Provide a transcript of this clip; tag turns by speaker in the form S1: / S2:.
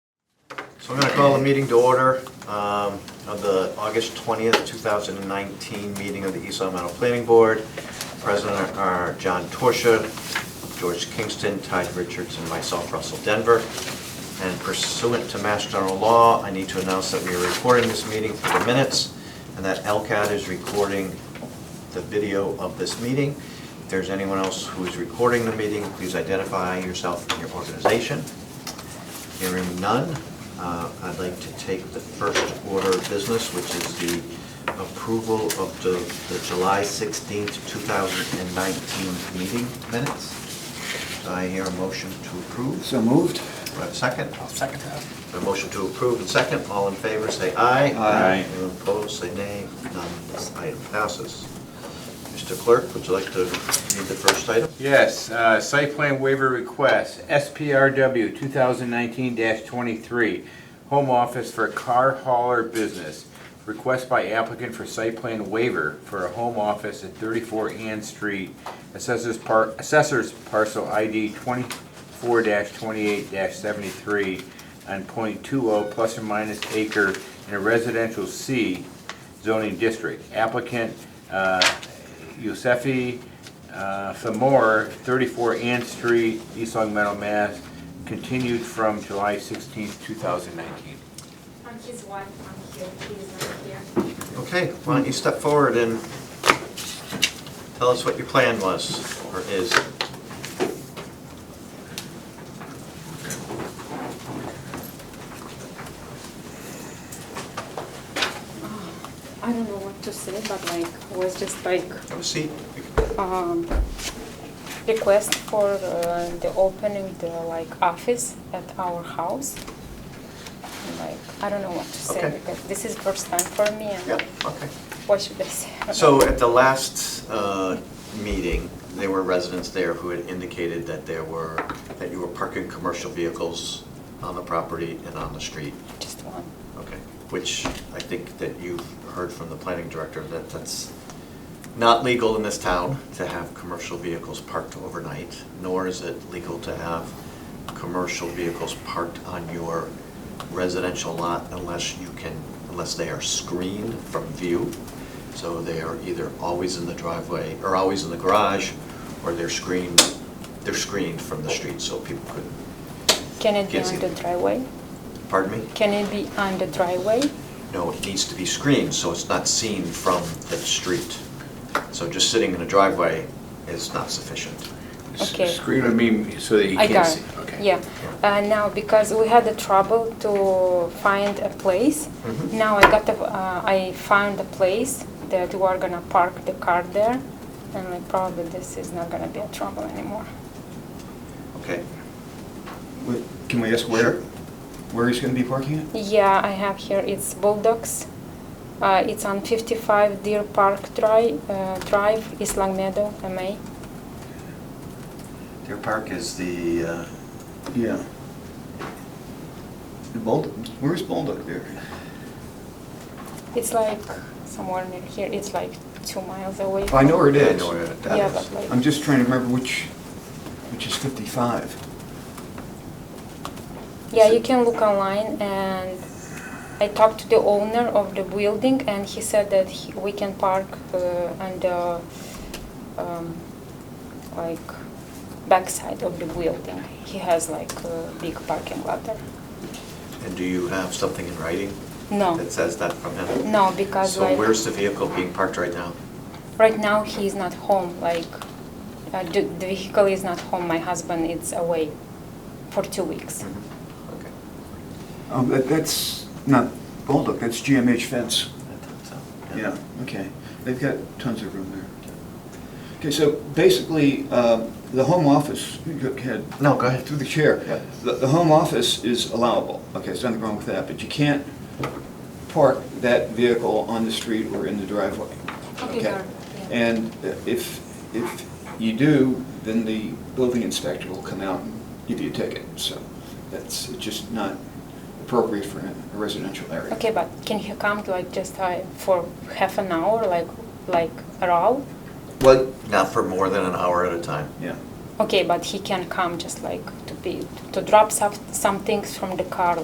S1: We're going to call the meeting to order um, of the August 20th, 2019 meeting of the East Long Meadow Planning Board. President are John Torsia, George Kingston, Tide Richards, and myself, Russell Denver. And pursuant to Mass General Law, I need to announce that we are recording this meeting for the minutes and that LCAT is recording the video of this meeting. If there's anyone else who is recording the meeting, please identify yourself and your organization. Hearing none, uh, I'd like to take the first order of business, which is the approval of the the July 16th, 2019 meeting minutes. Do I hear a motion to approve?
S2: So moved?
S1: Do I have a second?
S2: second that.
S1: A motion to approve and second, all in favor, say aye.
S2: Aye.
S1: Anyone opposed, say nay. None, this item passes. Mr. Clerk, would you like to read the first item?
S3: Yes, uh, site plan waiver request, SPRW 2019-23, home office for car hauler business. Request by applicant for site plan waiver for a home office at 34 Ann Street, assessors par, assessors parcel ID 24-28-73 on .20 plus or minus acre in a residential C zoning district. Applicant uh, Yosefi uh, Famor, 34 Ann Street, East Long Meadow, Mass., continued from July 16, 2019.
S4: On his wife, on here, he is not here.
S1: Okay, why don't you step forward and tell us what your plan was, or is.
S5: I don't know what to say, but like, was just like,
S1: Have a seat.
S5: um, request for uh, the opening the like office at our house. And, Like, I don't know what to say
S1: Okay.
S5: because this is first time for me and
S1: Yeah, okay.
S5: what should I say?
S1: So at the last uh, meeting, there were residents there who had indicated that there were, that you were parking commercial vehicles on the property and on the street.
S5: Just one.
S1: Okay, which I think that you've heard from the planning director that that's not legal in this town to have commercial vehicles parked overnight, nor is it legal to have commercial vehicles parked on your residential lot unless you can, unless they are screened from view. So they are either always in the driveway, or always in the garage, or they're screened, they're screened from the street, so people could,
S5: Can it be
S1: Can't see
S5: on the
S1: it.
S5: driveway?
S1: pardon me?
S5: Can it be on the driveway?
S1: No, it needs to be screened, so it's not seen from the street. So just sitting in a driveway is not sufficient.
S5: Okay.
S3: Screen, I mean, so that you
S5: I
S3: can't
S5: got
S3: see.
S5: it.
S3: Okay.
S5: Yeah. Uh, now because we had the trouble to find a place.
S3: Mm-hmm.
S1: Mhm.
S5: Now I got the, uh, I found a place that we are gonna park the car there, and like probably this is not gonna be a trouble anymore.
S1: Okay,
S2: Wait, Can we ask where, where he's gonna be parking it?
S5: Yeah, I have here. It's Bulldogs. Uh, it's on 55 Deer Park Drive, uh, Drive, East Long Meadow, MA.
S1: Deer Park is the, uh,
S2: Yeah. The Bold, where's Bolduc there?
S5: It's like somewhere near here. It's like two miles away.
S2: I know where it
S1: Yeah, I
S2: is.
S1: know where that
S5: yeah,
S1: is.
S5: but like
S2: I'm just trying to remember which, which is 55.
S5: Yeah, you can look online and I talked to the owner of the building and he said that he, we can park uh, on the um, like backside of the building. He has like a big parking lot there.
S1: and do you have something in writing?
S5: No.
S1: That says that from him?
S5: No, because
S1: So
S5: like
S1: where's the vehicle being parked right now?
S5: right now he is not home. Like uh, the, the vehicle is not home. My husband is away for two weeks.
S1: Mhm, Okay.
S2: Um, that, that's not Bolduc, that's GMH Fence.
S1: I thought so,
S2: Yeah, okay. They've got tons of room there. Okay, so basically, um, the home office, go ahead.
S1: No, go ahead.
S2: Through the chair.
S1: Yeah.
S2: The, the home office is allowable. Okay, there's nothing wrong with that, but you can't park that vehicle on the street or in the driveway.
S4: Okay, got it, yeah.
S2: And uh, if, if you do, then the building inspector will come out and give you a ticket, so that's just not appropriate for a residential area.
S5: Okay, but can he come like just uh, for half an hour, like like at all?
S2: Well,
S1: Not for more than an hour at a time.
S2: yeah.
S5: Okay, but he can come just like to be to drop some, some things from the car,